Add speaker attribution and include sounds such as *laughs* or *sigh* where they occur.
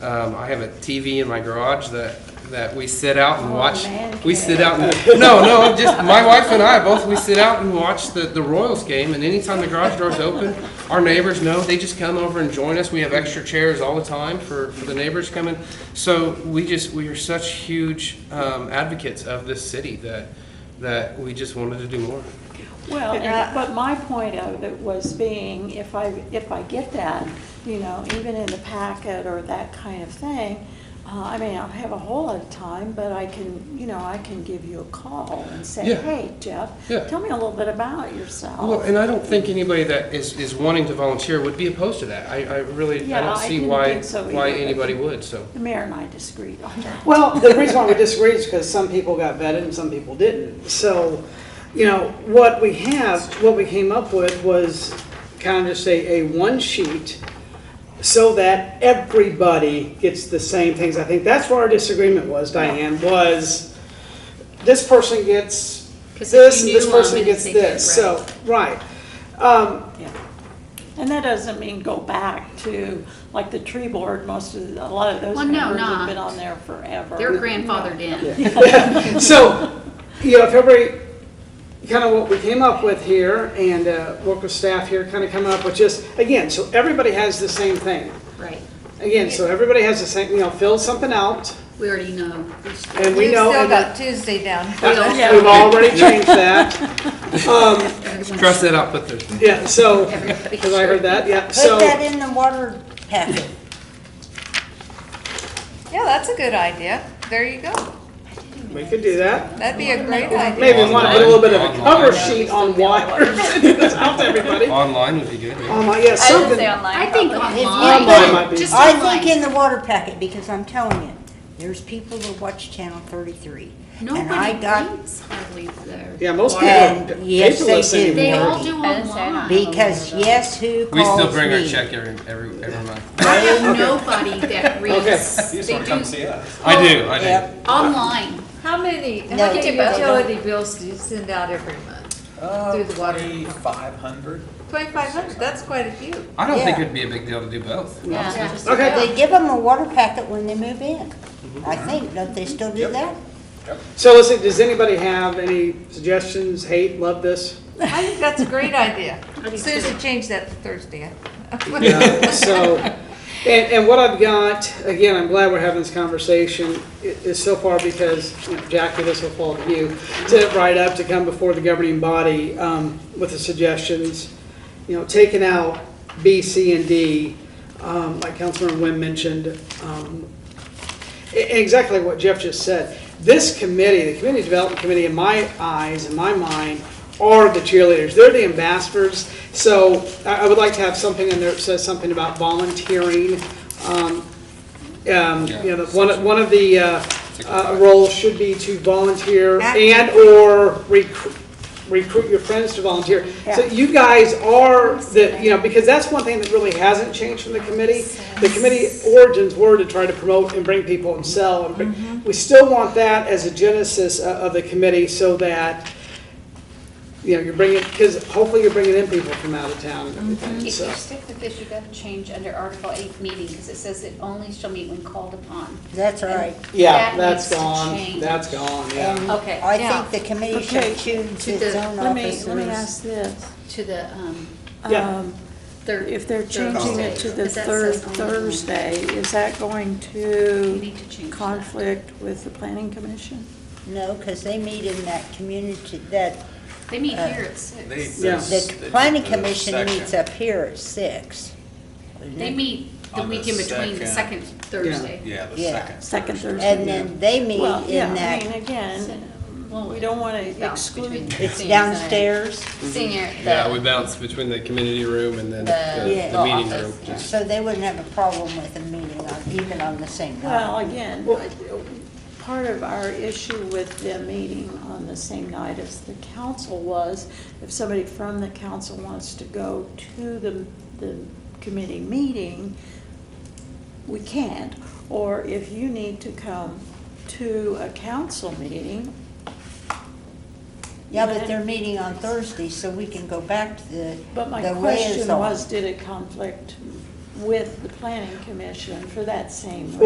Speaker 1: Um, I have a TV in my garage that, that we sit out and
Speaker 2: Oh,
Speaker 1: watch.
Speaker 2: man
Speaker 1: We sit out and, no, no, just, my wife and I both, we sit out and watch the, the Royals game and anytime the garage door's open, our neighbors know, they just come over and join us. We have extra chairs all the time for, for the neighbors coming. So we just, we are such huge, um, advocates of this city that, that we just wanted to do more.
Speaker 2: Well, and- but my point of it was being, if I, if I get that, you know, even in the packet or that kind of thing, uh, I mean, I don't have a whole lot of time, but I can, you know, I can give you a call and say,
Speaker 1: Yeah.
Speaker 2: hey, Jeff,
Speaker 1: Yeah.
Speaker 2: tell me a little bit about
Speaker 1: Well,
Speaker 2: yourself.
Speaker 1: and I don't think anybody that is, is wanting to volunteer would be opposed to that. I, I really, I
Speaker 2: Yeah,
Speaker 1: don't
Speaker 2: I
Speaker 1: see
Speaker 2: didn't
Speaker 1: why,
Speaker 2: think so
Speaker 1: why
Speaker 2: either, but-
Speaker 1: anybody would, so.
Speaker 2: The mayor and I disagreed on that.
Speaker 3: Well, the reason why we disagree is because some people got vetted and some people didn't. So, you know, what we have, what we came up with was kind of just a, a one sheet so that everybody gets the same things. I think that's where our disagreement was, Diane, was this person gets
Speaker 4: 'Cause if
Speaker 3: this and
Speaker 4: you
Speaker 3: this
Speaker 4: knew 'em
Speaker 3: person
Speaker 4: and
Speaker 3: gets
Speaker 4: they did,
Speaker 3: this. So, right. Um,
Speaker 2: Yeah, And that doesn't mean go back to, like, the tree board, most of, the- a lot of those
Speaker 4: Well, no,
Speaker 2: members have been
Speaker 4: not.
Speaker 2: on there forever.
Speaker 4: They're grandfathered
Speaker 3: *laughs*
Speaker 4: in.
Speaker 3: So, you know, if everybody, kind of what we came up with here and uh, work with staff here, kind of coming up with just, again, so everybody has the same thing.
Speaker 4: Right.
Speaker 3: Again, so everybody has the same, you know, fill something out
Speaker 4: We already know.
Speaker 3: and we know.
Speaker 5: We've still
Speaker 3: and
Speaker 5: got Tuesday down.
Speaker 2: Yeah.
Speaker 3: We've already changed that.
Speaker 1: Cross that out, put the,
Speaker 3: Yeah, so,
Speaker 4: Everybody-
Speaker 3: because I heard that, yeah, so.
Speaker 6: Put that in the water packet.
Speaker 5: Yeah, that's a good idea. There you go.
Speaker 3: We could do that.
Speaker 5: That'd be a great idea.
Speaker 3: Maybe want to put a little bit of a cover sheet on water. *laughs* Send this out to
Speaker 6: *laughs*
Speaker 3: everybody.
Speaker 1: online would be good. yeah.
Speaker 3: Um, yeah, something.
Speaker 4: I think
Speaker 3: Online might
Speaker 4: online,
Speaker 3: be-
Speaker 4: just
Speaker 6: I think
Speaker 4: online.
Speaker 6: in the water packet, because I'm telling you, there's people that watch Channel thirty-three. And I
Speaker 4: Nobody
Speaker 6: got,
Speaker 4: reads hardly there.
Speaker 3: Yeah, most people
Speaker 6: And
Speaker 3: are
Speaker 6: Um, yes, they
Speaker 3: paperless
Speaker 6: do.
Speaker 4: They
Speaker 3: anymore.
Speaker 4: all do online.
Speaker 6: because yes, who
Speaker 1: We
Speaker 6: calls me?
Speaker 1: still bring our check every, every, every month.
Speaker 4: I have nobody that reads.
Speaker 7: You just
Speaker 4: They
Speaker 7: want to come
Speaker 4: do
Speaker 7: see us.
Speaker 1: I do, I do.
Speaker 6: Yep,
Speaker 4: online.
Speaker 8: How many, how
Speaker 6: No,
Speaker 8: many
Speaker 6: you don't.
Speaker 8: utility bills do you send out every month? Through the water.
Speaker 7: Five hundred.
Speaker 8: Twenty-five hundred, that's quite a few.
Speaker 1: I don't think
Speaker 6: Yeah.
Speaker 1: it'd be a big deal to do both.
Speaker 4: Yeah.
Speaker 3: Okay.
Speaker 6: they give them a water packet when they move in.
Speaker 1: Mm-hmm.
Speaker 6: I think, don't they still do that?
Speaker 3: So listen, does anybody have any suggestions, hate, love this?
Speaker 5: I think that's a great idea.
Speaker 4: do
Speaker 5: *laughs* Susan,
Speaker 4: too.
Speaker 5: change that to Thursday.
Speaker 3: Yeah, so, and, and what I've got, again, I'm glad we're having this conversation, i- is so far because, you know, Jackie, this will fall to you, to write up, to come before the governing body, um, with the suggestions, you know, taking out B, C, and D, um, like Councilman Wynn mentioned, um, e- exactly what Jeff just said. This committee, the Community Development Committee, in my eyes, in my mind, are the cheerleaders. They're the ambassadors. So I I would like to have something in there that says something about volunteering. Um, um, You know, one, of- one of the uh, uh, roles should be to volunteer and/or recruit recruit your friends to volunteer. So
Speaker 6: Yeah.
Speaker 3: you guys are the, you know, because that's one thing that really hasn't changed from the committee. The committee origins were to try to promote and bring people and sell. and bring- We still want that as a genesis o- of the committee so that, you know, you're bringing, because hopefully you're bringing in people from out of town and everything,
Speaker 4: If
Speaker 3: so.
Speaker 4: you stick with this, you gotta change under Article eight meeting, because it says it only shall meet when called upon.
Speaker 6: That's all right.
Speaker 3: Yeah,
Speaker 4: That
Speaker 3: that's
Speaker 4: needs to
Speaker 3: gone,
Speaker 4: change.
Speaker 3: that's gone, yeah.
Speaker 6: And
Speaker 4: Okay,
Speaker 6: I
Speaker 5: yeah.
Speaker 6: think the committee should choose
Speaker 4: To
Speaker 6: its
Speaker 4: the-
Speaker 6: own
Speaker 2: Let me,
Speaker 6: officers.
Speaker 2: let me ask this.
Speaker 4: To the, um,
Speaker 3: Yeah.
Speaker 2: Um,
Speaker 4: third.
Speaker 2: If they're changing it to the
Speaker 4: Thursday, 'cause that
Speaker 2: third
Speaker 4: says only when-
Speaker 2: Thursday, is that going
Speaker 4: You
Speaker 2: to
Speaker 4: need to change that.
Speaker 2: conflict with the planning commission?
Speaker 6: No, because they meet in that community, that,
Speaker 4: They meet here at six.
Speaker 3: Yeah.
Speaker 6: the planning commission meets
Speaker 7: needs
Speaker 6: up here at six.
Speaker 4: They meet the
Speaker 7: On the
Speaker 4: week in between, the second
Speaker 7: second.
Speaker 4: Thursday.
Speaker 7: Yeah, the
Speaker 6: Yeah.
Speaker 7: second.
Speaker 2: Second Thursday?
Speaker 6: And then they meet
Speaker 2: Well, yeah,
Speaker 6: in
Speaker 2: I mean,
Speaker 6: that,
Speaker 2: again, we don't want to exclude,
Speaker 6: it's downstairs.
Speaker 4: Senior.
Speaker 1: Yeah, we bounce between the community room and then the,
Speaker 6: Yeah.
Speaker 1: the meeting
Speaker 4: The
Speaker 1: room.
Speaker 4: office,
Speaker 1: just-
Speaker 6: So they wouldn't have a problem with a meeting on, even on the same night.
Speaker 2: well, again,
Speaker 3: Well-
Speaker 2: I- part of our issue with them meeting on the same night as the council was, if somebody from the council wants to go to the, the committee meeting, we can't. Or if you need to come to a council meeting,
Speaker 6: Yeah, but they're meeting on Thursday, so we can go back to the,
Speaker 2: but my
Speaker 6: the way it's
Speaker 2: question
Speaker 6: on.
Speaker 2: was, did it conflict with the planning commission for that same